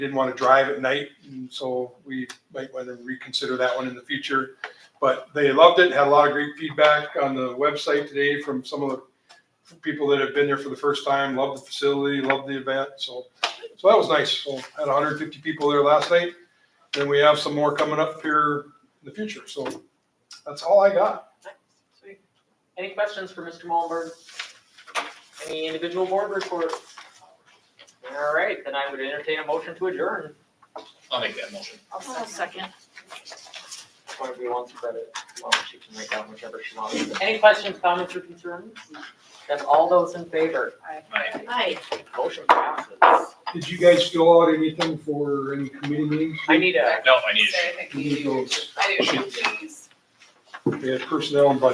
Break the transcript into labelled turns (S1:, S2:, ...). S1: didn't want to drive at night, and so we might want to reconsider that one in the future. But they loved it, had a lot of great feedback on the website today from some of the people that have been there for the first time, loved the facility, loved the event, so, so that was nice. So had hundred and fifty people there last night, and we have some more coming up here in the future, so that's all I got.
S2: Sweet. Any questions for Mr. Malmberg? Any individual board reports? All right, then I would entertain a motion to adjourn.
S3: I'll make that motion.
S4: I'll second.
S2: Whatever you want to credit, well, she can write down whichever she wants. Any questions, comments, or concerns? Then all those in favor,
S3: Aye.
S4: Aye.
S2: motion passes.
S1: Did you guys fill out anything for any committee meetings?
S2: I need a
S3: No, I need it.
S5: So I think
S1: We need
S5: we,
S1: those.
S5: I do, please.
S1: We had personnel and budget.